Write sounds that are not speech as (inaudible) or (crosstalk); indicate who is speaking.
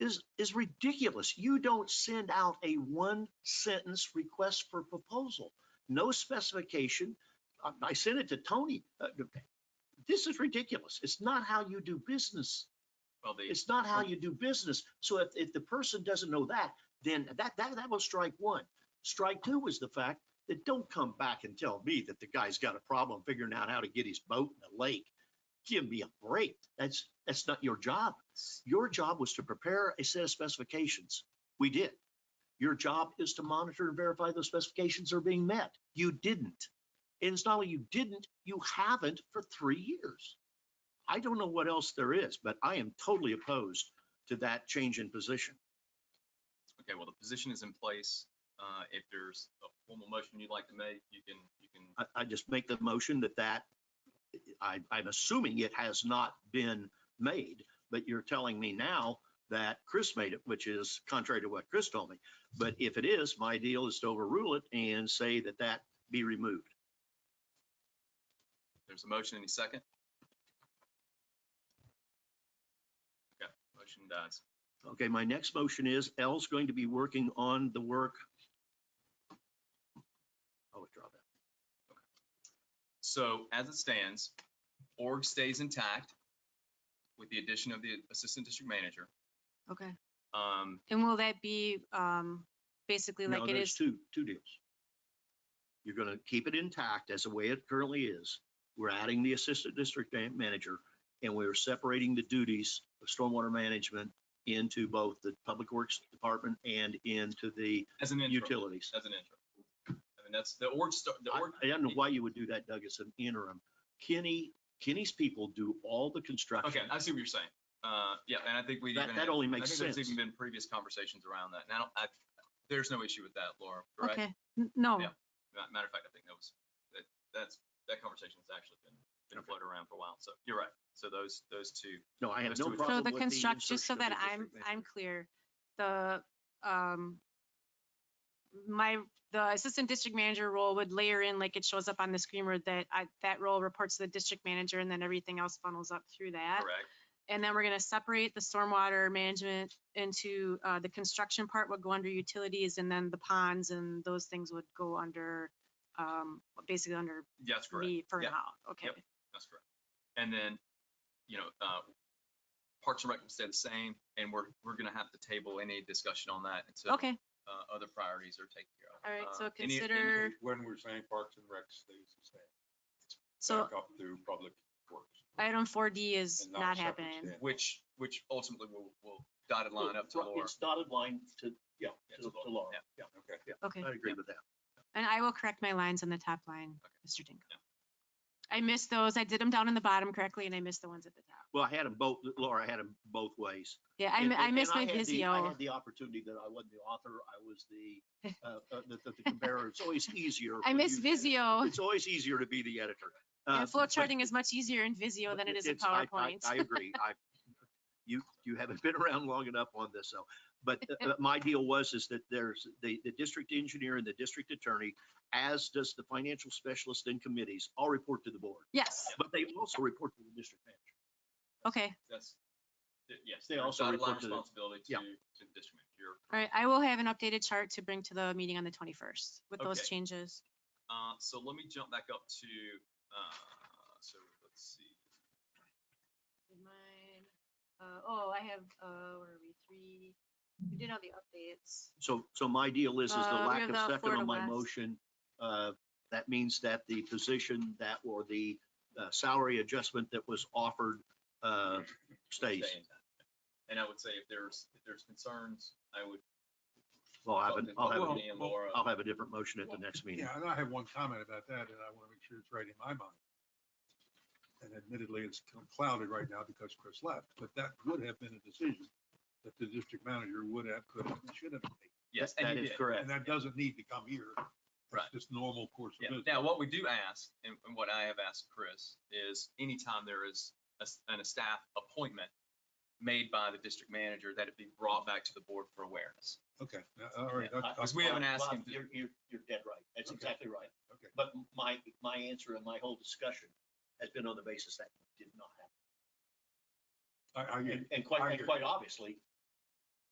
Speaker 1: is, is ridiculous. You don't send out a one sentence request for proposal, no specification. I- I sent it to Tony. Uh, This is ridiculous. It's not how you do business.
Speaker 2: Well, they,
Speaker 1: It's not how you do business. So if, if the person doesn't know that, then that, that, that was strike one. Strike two was the fact that don't come back and tell me that the guy's got a problem figuring out how to get his boat in the lake. Give me a break. That's, that's not your job. Your job was to prepare a set of specifications. We did. Your job is to monitor and verify those specifications are being met. You didn't. And it's not only you didn't, you haven't for three years. I don't know what else there is, but I am totally opposed to that change in position.
Speaker 2: okay, well, the position is in place. Uh, if there's a formal motion you'd like to make, you can, you can,
Speaker 1: I, I just make the motion that that, I, I'm assuming it has not been made, but you're telling me now that Chris made it, which is contrary to what Chris told me. But if it is, my deal is to overrule it and say that that be removed.
Speaker 2: there's a motion, any second? Okay, motion dies.
Speaker 1: Okay, my next motion is L's going to be working on the work. I'll withdraw that.
Speaker 2: So as it stands, org stays intact with the addition of the assistant district manager.
Speaker 3: Okay,
Speaker 2: Um,
Speaker 3: and will that be, um, basically
Speaker 1: No,
Speaker 3: like it
Speaker 1: there's
Speaker 3: is?
Speaker 1: two, two deals. You're gonna keep it intact as the way it currently is. We're adding the assistant district ma- manager and we're separating the duties of stormwater management into both the public works department and into the
Speaker 2: as an interim,
Speaker 1: utilities.
Speaker 2: as an interim. I mean, that's the org, sta- the
Speaker 1: I
Speaker 2: org,
Speaker 1: I don't know why you would do that, Doug, as an interim. Kenny, Kenny's people do all the
Speaker 2: okay,
Speaker 1: construction.
Speaker 2: I see what you're saying. Uh, yeah, and I think we even.
Speaker 1: That,
Speaker 2: had-
Speaker 1: that only
Speaker 2: I
Speaker 1: makes
Speaker 2: think
Speaker 1: sense.
Speaker 2: there's even been previous conversations around that. And I don't, I, there's no issue with that, Laura, correct?
Speaker 3: Okay, N- no,
Speaker 2: Yeah. Ma- Matter of fact, I think that was, that, that's, that conversation has actually been, been floated around for a while. So you're right. So those, those two,
Speaker 1: No, I have
Speaker 2: Let's do
Speaker 1: no
Speaker 2: it. So
Speaker 3: so
Speaker 1: problem
Speaker 3: the
Speaker 1: with the
Speaker 3: construct, just so
Speaker 1: insertion of
Speaker 3: that
Speaker 1: the
Speaker 3: I'm,
Speaker 1: district
Speaker 3: I'm
Speaker 1: manager.
Speaker 3: clear, the, um, my, the assistant district manager role would layer in like it shows up on the screen where that I, that role reports to the district manager and then everything else funnels up through that.
Speaker 2: correct?
Speaker 3: And then we're gonna separate the stormwater management into, uh, the construction part would go under utilities and then the ponds and those things would go under, um, basically under
Speaker 2: Yes, correct.
Speaker 3: me for
Speaker 2: Yeah.
Speaker 3: now, okay?
Speaker 2: That's correct. And then, you know, uh, Parks and Rec will stay the same and we're, we're going to have to table any discussion on that until
Speaker 3: Okay,
Speaker 2: uh, other priorities are taken care of.
Speaker 3: all right,
Speaker 2: Uh,
Speaker 3: so
Speaker 2: any- any-
Speaker 3: consider,
Speaker 4: When we're saying Parks and Rec stays the same,
Speaker 3: so
Speaker 4: back up through Public Works.
Speaker 3: item four D is
Speaker 4: and
Speaker 3: not
Speaker 4: a separate
Speaker 3: happening.
Speaker 4: stand.
Speaker 2: Which, which ultimately will, will dotted line up to
Speaker 1: Right,
Speaker 2: Laura.
Speaker 1: It's dotted line to, yeah,
Speaker 2: Yeah,
Speaker 1: to
Speaker 2: to
Speaker 1: to
Speaker 2: Laura,
Speaker 1: Laura.
Speaker 2: yeah.
Speaker 1: Yeah,
Speaker 4: Okay.
Speaker 3: Okay,
Speaker 1: I agree with that.
Speaker 3: and I will correct my lines on the top line,
Speaker 2: Okay.
Speaker 3: Mr. Dingle.
Speaker 2: Yeah.
Speaker 3: I missed those. I did them down in the bottom correctly and I missed the ones at the top.
Speaker 1: Well, I had them both, Laura, I had them both ways.
Speaker 3: Yeah, I,
Speaker 1: And-
Speaker 3: mi-
Speaker 1: and-
Speaker 3: I
Speaker 1: and
Speaker 3: missed my
Speaker 1: had the- I
Speaker 3: Visio.
Speaker 1: had the opportunity that I wasn't the author, I was
Speaker 3: (laughs)
Speaker 1: the, uh, uh, the, the the comparer. It's always easier.
Speaker 3: I
Speaker 1: when
Speaker 3: missed
Speaker 1: you-
Speaker 3: Visio.
Speaker 1: It's always easier to be the editor. Uh,
Speaker 3: And flow
Speaker 1: but-
Speaker 3: charting is much easier in Visio
Speaker 1: but
Speaker 3: than it is in
Speaker 1: it's- I- I-
Speaker 3: PowerPoint.
Speaker 1: I agree. I, you, you haven't been around long enough on this, so. But uh, uh, my deal was is that there's the, the district engineer and the district attorney, as does the financial specialist and committees, all report to the board.
Speaker 3: Yes,
Speaker 1: But they also report to the district manager.
Speaker 3: okay.
Speaker 2: That's, th- yes.
Speaker 1: They
Speaker 2: there's
Speaker 1: also
Speaker 2: dotted line
Speaker 1: report to the-
Speaker 2: Responsibility to,
Speaker 1: yeah.
Speaker 2: to the district manager. You're
Speaker 3: All right, I will have an updated chart to bring to the meeting on the 21st with those
Speaker 2: Okay.
Speaker 3: changes.
Speaker 2: Uh, so let me jump back up to, uh, so let's see.
Speaker 3: Oh, I have, where are we, three, we did all the updates.
Speaker 1: So, so my deal is, is the
Speaker 3: Uh, we
Speaker 1: lack
Speaker 3: have
Speaker 1: of
Speaker 3: the
Speaker 1: second
Speaker 3: Florida
Speaker 1: on my
Speaker 3: West.
Speaker 1: motion, uh, that means that the position that, or the uh, salary adjustment that was offered uh, stays.
Speaker 2: stay intact. And I would say if there's, if there's concerns, I would.
Speaker 1: Well, I'll have, a- I'll have, oh,
Speaker 2: talk
Speaker 1: a-
Speaker 2: to Dan,
Speaker 4: well,
Speaker 2: Laura.
Speaker 1: I'll have a different motion at the next meeting.
Speaker 4: Yeah, and I have one comment about that, and I want to make sure it's right in my mind. And admittedly, it's clouded right now because Chris left, but that would have been a decision that the district manager would have, could have, and should have made.
Speaker 2: Yes,
Speaker 1: That
Speaker 2: and
Speaker 1: that is
Speaker 2: you did.
Speaker 4: And
Speaker 1: correct.
Speaker 4: that doesn't need to come here.
Speaker 2: Right.
Speaker 4: It's just normal course
Speaker 2: Yeah.
Speaker 4: of business.
Speaker 2: Now, what we do ask, and, and what I have asked Chris, is anytime there is a, s- an- a staff appointment made by the district manager, that it be brought back to the board for awareness.
Speaker 4: Okay, now, all right.
Speaker 1: Yeah,
Speaker 4: I- I-
Speaker 2: Because we haven't asked
Speaker 1: Bob,
Speaker 2: him to-
Speaker 1: You're, you're, you're dead right. That's
Speaker 4: Okay.
Speaker 1: exactly right.
Speaker 4: Okay.
Speaker 1: But my, my answer and my whole discussion has been on the basis that did not happen.
Speaker 4: I, I,
Speaker 1: And- And quite,
Speaker 4: I
Speaker 1: and
Speaker 4: agree.
Speaker 1: quite obviously,